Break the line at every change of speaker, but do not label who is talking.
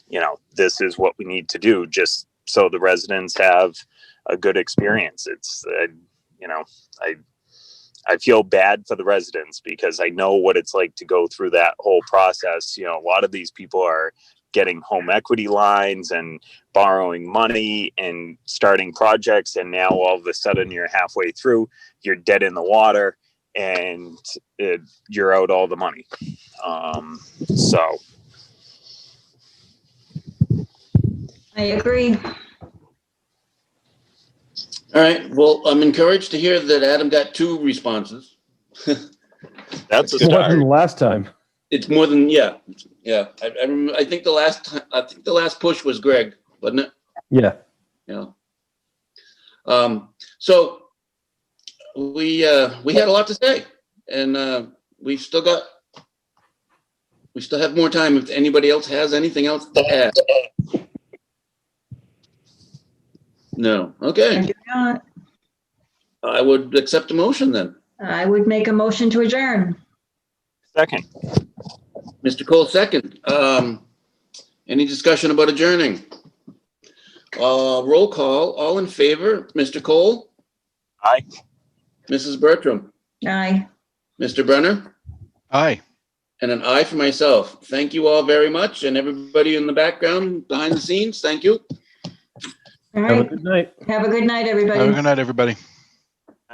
you know, this is what we need to do just so the residents have a good experience. It's, uh, you know, I, I feel bad for the residents because I know what it's like to go through that whole process. You know, a lot of these people are getting home equity lines and borrowing money and starting projects. And now all of a sudden you're halfway through, you're dead in the water and it, you're out all the money. Um, so,
I agree.
All right, well, I'm encouraged to hear that Adam got two responses.
That's a
It
start.
wasn't last time.
It's more than, yeah, yeah. I, I, rem- I think the last, ti- I think the last push was Greg, wasn't it?
Yeah.
Yeah. Um, so we, uh, we had a lot to say and, uh, we've still got, we still have more time if anybody else has anything else to add. No,
I
okay,
do not.
I would accept a motion then.
I would make a motion to adjourn.
Second,
Mr. Cole, second. Um, any discussion about adjourning? Uh, roll call, all in favor, Mr. Cole,
aye.
Mrs. Bertram,
Aye.
Mr. Brenner,
Aye.
and an aye for myself. Thank you all very much, and everybody in the background, behind the scenes, thank you.
All
Have a
right.
good night.
Have a good night,
Have a
everybody.
good night, everybody.